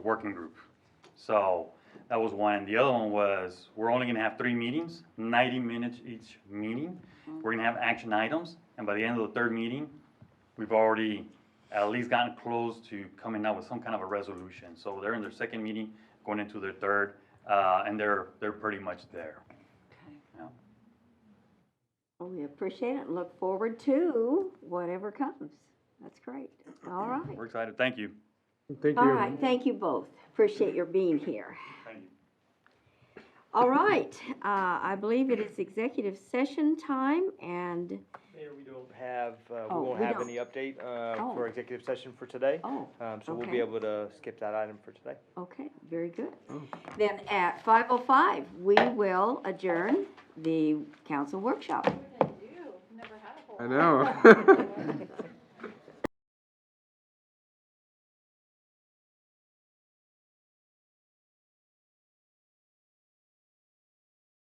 working group. So that was one. The other one was, we're only gonna have three meetings, ninety minutes each meeting. We're gonna have action items, and by the end of the third meeting, we've already at least gotten close to coming out with some kind of a resolution. So they're in their second meeting, going into their third, uh, and they're, they're pretty much there. Yeah. Well, we appreciate it and look forward to whatever comes. That's great. All right. We're excited. Thank you. Thank All you. right, thank you both. Appreciate your being here. Thank you. All right, uh, I believe it is executive session time and, Mayor, we don't have, uh, Oh, we won't we have don't. any update uh, Oh. for executive session for today. oh, Um, So we'll okay. be able to skip that item for today. okay, very good. Then at five oh five, we will adjourn the council workshop. I know.